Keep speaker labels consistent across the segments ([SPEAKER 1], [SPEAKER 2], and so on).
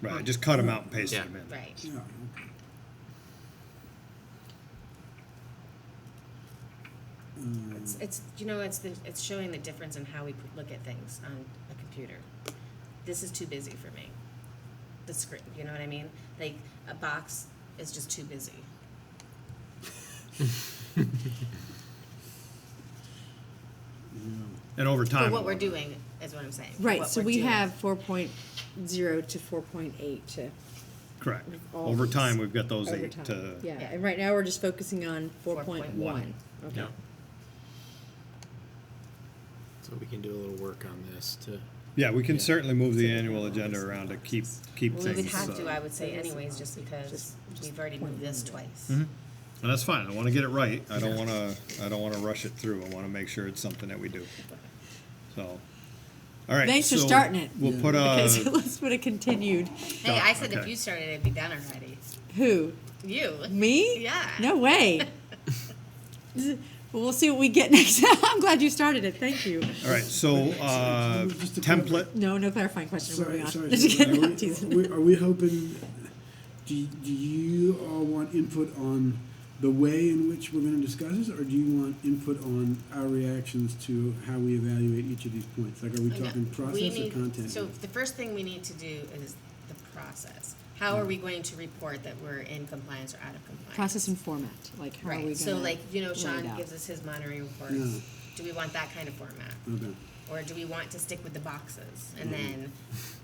[SPEAKER 1] Right, I just cut them out and pasted
[SPEAKER 2] Yeah.
[SPEAKER 1] them in.
[SPEAKER 3] Right.
[SPEAKER 4] Yeah,
[SPEAKER 3] It's,
[SPEAKER 1] Mm.
[SPEAKER 3] it's, you know, it's the, it's showing the difference in how we pr- look at things on a computer. This is too busy for me. The screen, you know what I mean? Like, a box is just too busy.
[SPEAKER 1] And over
[SPEAKER 3] For
[SPEAKER 1] time.
[SPEAKER 3] what we're doing is what I'm saying. for
[SPEAKER 5] Right,
[SPEAKER 3] what
[SPEAKER 5] so
[SPEAKER 3] we're
[SPEAKER 5] we
[SPEAKER 3] doing.
[SPEAKER 5] have four point zero to four point eight to
[SPEAKER 1] Correct.
[SPEAKER 5] all
[SPEAKER 1] Over
[SPEAKER 5] these
[SPEAKER 1] time, we've got those eight
[SPEAKER 5] overtime.
[SPEAKER 1] to.
[SPEAKER 5] Yeah,
[SPEAKER 3] Yeah.
[SPEAKER 5] and right now we're just focusing on four point
[SPEAKER 3] 4.1.
[SPEAKER 5] one.
[SPEAKER 2] Yeah.
[SPEAKER 5] Okay.
[SPEAKER 2] So we can do a little work on this to.
[SPEAKER 1] Yeah, we can
[SPEAKER 2] Yeah.
[SPEAKER 1] certainly move the annual agenda around to keep, keep
[SPEAKER 3] Well, we
[SPEAKER 1] things.
[SPEAKER 3] would have to,
[SPEAKER 1] uh,
[SPEAKER 3] I would say
[SPEAKER 5] It is
[SPEAKER 3] anyways, just because
[SPEAKER 5] Just- just
[SPEAKER 3] we've already moved
[SPEAKER 5] point
[SPEAKER 3] this
[SPEAKER 5] one.
[SPEAKER 3] twice.
[SPEAKER 1] Mm-hmm. And that's fine, I wanna get it right, I don't wanna, I don't wanna rush it through, I wanna make sure it's something that we do. So, alright.
[SPEAKER 5] Thanks for
[SPEAKER 1] so
[SPEAKER 5] starting it.
[SPEAKER 1] We'll put
[SPEAKER 5] Okay, so
[SPEAKER 1] a,
[SPEAKER 5] let's put a continued.
[SPEAKER 3] Hey,
[SPEAKER 1] Done,
[SPEAKER 3] I said if
[SPEAKER 1] okay.
[SPEAKER 3] you started, it'd be done already.
[SPEAKER 5] Who?
[SPEAKER 3] You.
[SPEAKER 5] Me?
[SPEAKER 3] Yeah.
[SPEAKER 5] No way. well, we'll see what we get next. I'm glad you started it. Thank you.
[SPEAKER 1] alright, so, uh,
[SPEAKER 4] Just a quick-
[SPEAKER 1] template,
[SPEAKER 5] No, no clarifying question.
[SPEAKER 4] sorry,
[SPEAKER 5] Moving on.
[SPEAKER 4] sorry.
[SPEAKER 5] Just kidding. I'm
[SPEAKER 4] Are
[SPEAKER 5] teasing.
[SPEAKER 4] we- we- are we hoping, do, do you all want input on the way in which we're gonna discuss this? Or do you want input on our reactions to how we evaluate each of these points? Like, are we
[SPEAKER 3] I know.
[SPEAKER 4] talking
[SPEAKER 3] Oh, We
[SPEAKER 4] process or
[SPEAKER 3] need-
[SPEAKER 4] content?
[SPEAKER 3] So the first thing we need to do is the process. How are we
[SPEAKER 4] Mm.
[SPEAKER 3] going to report that we're in compliance or out of compliance?
[SPEAKER 5] Process and format. Like how are we
[SPEAKER 3] Right,
[SPEAKER 5] going
[SPEAKER 3] so like, you know, Sean
[SPEAKER 5] out?
[SPEAKER 3] gives us his monitoring report.
[SPEAKER 4] Yeah.
[SPEAKER 3] Do we want that kind of format?
[SPEAKER 4] Okay,
[SPEAKER 3] Or do we want to stick with the boxes and then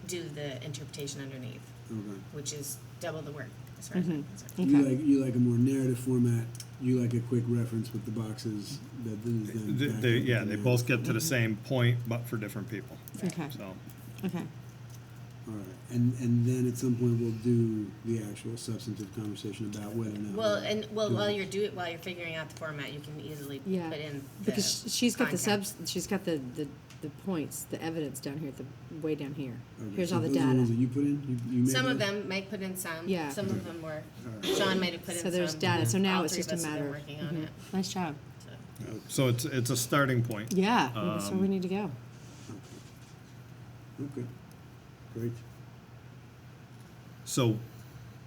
[SPEAKER 3] do the interpretation underneath,
[SPEAKER 4] okay.
[SPEAKER 3] which is double the work, as far as I'm concerned.
[SPEAKER 4] You
[SPEAKER 5] Mm-hmm. Okay.
[SPEAKER 4] like, you like a more narrative format, you like a quick reference with the boxes that then is then.
[SPEAKER 1] th-
[SPEAKER 4] backed
[SPEAKER 1] they,
[SPEAKER 4] up with
[SPEAKER 1] yeah,
[SPEAKER 4] the
[SPEAKER 1] they
[SPEAKER 4] narrative.
[SPEAKER 1] both get to the same point, but for different people,
[SPEAKER 5] Okay.
[SPEAKER 1] so.
[SPEAKER 5] Okay.
[SPEAKER 4] All right, and, and then at some point we'll do the actual substantive conversation about whether or not.
[SPEAKER 3] Well,
[SPEAKER 4] we're
[SPEAKER 3] and, well, while
[SPEAKER 4] doing-
[SPEAKER 3] you're do while you're figuring out the format, you can easily put
[SPEAKER 5] Yeah.
[SPEAKER 3] in the
[SPEAKER 5] because sh- she's got the
[SPEAKER 3] content.
[SPEAKER 5] subs. She's got the, the the points, the evidence down here, the way down here.
[SPEAKER 1] Mm-hmm.
[SPEAKER 4] Okay,
[SPEAKER 5] Here's
[SPEAKER 4] so
[SPEAKER 5] all the
[SPEAKER 4] those are
[SPEAKER 5] data.
[SPEAKER 4] ones that you put in? You- you made
[SPEAKER 3] Some of
[SPEAKER 4] those?
[SPEAKER 3] them Mike put in some.
[SPEAKER 5] Yeah.
[SPEAKER 3] Some of them were,
[SPEAKER 4] Alright.
[SPEAKER 3] Sean might have put in
[SPEAKER 5] so
[SPEAKER 3] some.
[SPEAKER 5] there's data. So now
[SPEAKER 3] All
[SPEAKER 5] it's
[SPEAKER 3] three of
[SPEAKER 5] just a
[SPEAKER 3] us have been
[SPEAKER 5] matter.
[SPEAKER 3] working on
[SPEAKER 5] Mhm.
[SPEAKER 3] it,
[SPEAKER 5] Nice job.
[SPEAKER 3] so.
[SPEAKER 1] So it's, it's a starting point.
[SPEAKER 5] Yeah, that's
[SPEAKER 1] Um,
[SPEAKER 5] where we need to go.
[SPEAKER 4] Okay, great.
[SPEAKER 1] So,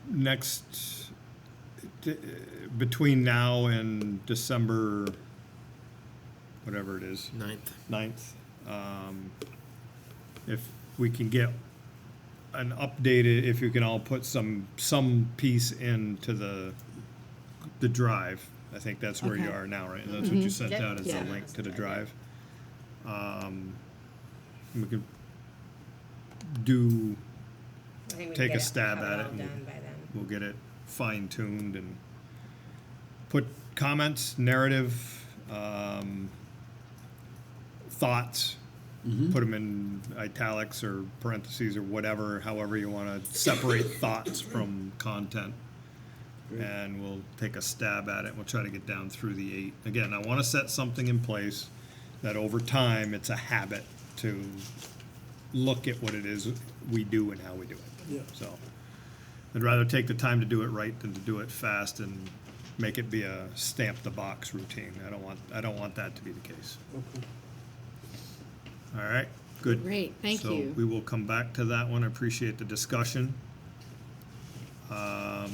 [SPEAKER 1] next, d- between now and December, whatever it is,
[SPEAKER 2] Ninth.
[SPEAKER 1] ninth, um, if we can get an updated, if you can all put some, some piece into the, the drive, I think that's where you
[SPEAKER 5] Okay. Mm-hmm.
[SPEAKER 1] are now, right? That's what you sent
[SPEAKER 3] Yep.
[SPEAKER 1] out as a
[SPEAKER 5] Yeah.
[SPEAKER 1] link to the drive. Um, we could do
[SPEAKER 3] I think we can
[SPEAKER 1] Take a
[SPEAKER 3] get it-
[SPEAKER 1] stab
[SPEAKER 3] have
[SPEAKER 1] at it
[SPEAKER 3] all
[SPEAKER 1] and-
[SPEAKER 3] done by then.
[SPEAKER 1] we'll get it fine tuned and put comments, narrative, um, thoughts. Put them in italics or parentheses or whatever, however you want to separate thoughts from content. And we'll take a stab at it. We'll try to get down through the eight. Again, I want to set something in place that over time it's a habit to look at what it is we do and how we do it.
[SPEAKER 4] Yeah.
[SPEAKER 1] So I'd rather take the time to do it right than to do it fast and make it be a stamp the box routine. I don't want, I don't want that to be the case. All right, good.
[SPEAKER 5] Great, thank you.
[SPEAKER 1] So we will come back to that one. I appreciate the discussion. Um,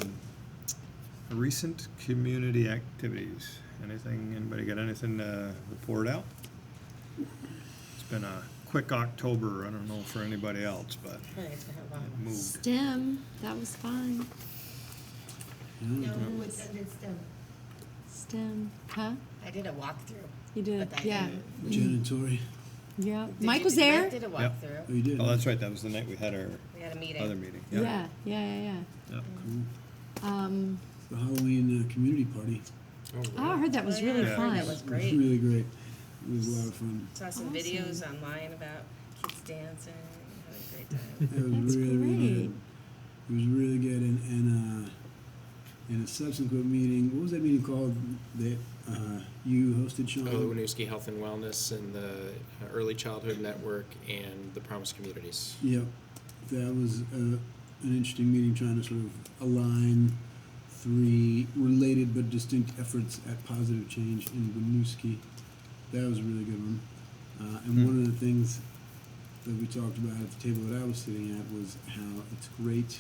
[SPEAKER 1] Recent community activities. Anything, anybody got anything to report out? It's been a quick October. I don't know for anybody else, but
[SPEAKER 3] I feel like it's been a long
[SPEAKER 1] it moved.
[SPEAKER 5] STEM. That was fun.
[SPEAKER 1] Mm-hmm.
[SPEAKER 4] Yeah,
[SPEAKER 6] No, it's under STEM.
[SPEAKER 5] STEM. Huh?
[SPEAKER 3] I did a walkthrough.
[SPEAKER 5] You did.
[SPEAKER 3] But I
[SPEAKER 5] Uh, Yeah.
[SPEAKER 3] didn't.
[SPEAKER 4] Jen and Tori,
[SPEAKER 5] Yeah.
[SPEAKER 3] Did
[SPEAKER 5] Mike
[SPEAKER 3] you-
[SPEAKER 5] was
[SPEAKER 3] Mike
[SPEAKER 5] there.
[SPEAKER 3] did a
[SPEAKER 1] Yep.
[SPEAKER 3] walkthrough.
[SPEAKER 4] oh, you did?
[SPEAKER 1] Oh, that's right. That was the night we had our
[SPEAKER 3] We had a meeting.
[SPEAKER 1] other meeting.
[SPEAKER 5] Yeah. Yeah. Yeah. Yeah.
[SPEAKER 1] Yeah.
[SPEAKER 5] Um,
[SPEAKER 4] The Halloween, uh, community party,
[SPEAKER 5] oh, I heard that was really
[SPEAKER 3] Yeah, I heard
[SPEAKER 5] fun.
[SPEAKER 3] That was
[SPEAKER 4] it was
[SPEAKER 3] great.
[SPEAKER 4] really great, it was a lot of fun,
[SPEAKER 3] Saw some
[SPEAKER 5] Awesome.
[SPEAKER 3] videos online about kids dancing, having a great time.
[SPEAKER 4] it was
[SPEAKER 5] That's
[SPEAKER 4] really, really
[SPEAKER 5] great.
[SPEAKER 4] good. It was really good, and, and, uh, in a subsequent meeting, what was that meeting called that, uh, you hosted, Sean?
[SPEAKER 2] Oh, the Winooski Health and Wellness and the uh, Early Childhood Network and the Promise Communities.
[SPEAKER 4] Yep, that was uh, an interesting meeting trying to sort of align three related but distinct efforts at positive change in Winooski. That was a really good one. Uh, and one of the things that we talked about at the table that I was sitting at was how it's great